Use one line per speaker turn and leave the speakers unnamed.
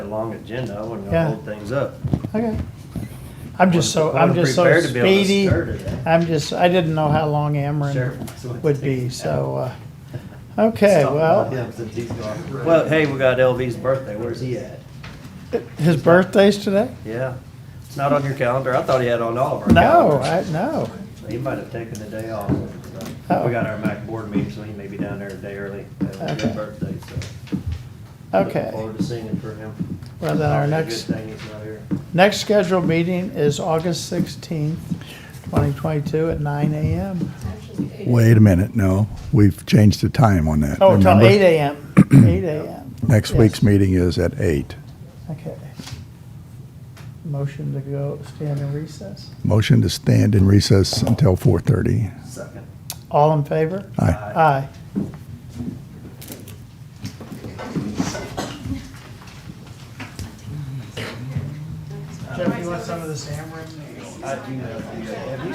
long agenda, I wasn't
Yeah.
gonna hold things up.
Okay. I'm just so, I'm
Wasn't
just so
prepared to be able to eh?
speedy.
stir today.
I'm just, I didn't know how long
Sure.
Ameren would be, so, uh, okay,
Stop about
well,
him since he's gone. Well, hey, we got LV's birthday, where's he at?
his birthday's today?
Yeah, it's not on your calendar, I thought he had on all of our
No,
calendars.
I, no.
He might have taken the day off.
Oh.
We got our MAC board meeting, so he may be down there a day early, having his
Okay.
birthday, so. Looking
Okay.
Forward to singing for him.
Well, then our
Probably a
next,
Good thing he's not here.
next scheduled meeting is August sixteenth, twenty twenty-two at nine AM.
Wait a minute, no, we've changed the time on that.
Oh, till
remember?
eight AM, eight AM.
Next
Yes.
week's meeting is at eight.
Okay. Motion to go stand in recess.
Motion to stand in recess until 4:30.
Second.
All in favor?
Aye.
Aye. Jeff, you want some of this Ameren?
I do know. Have you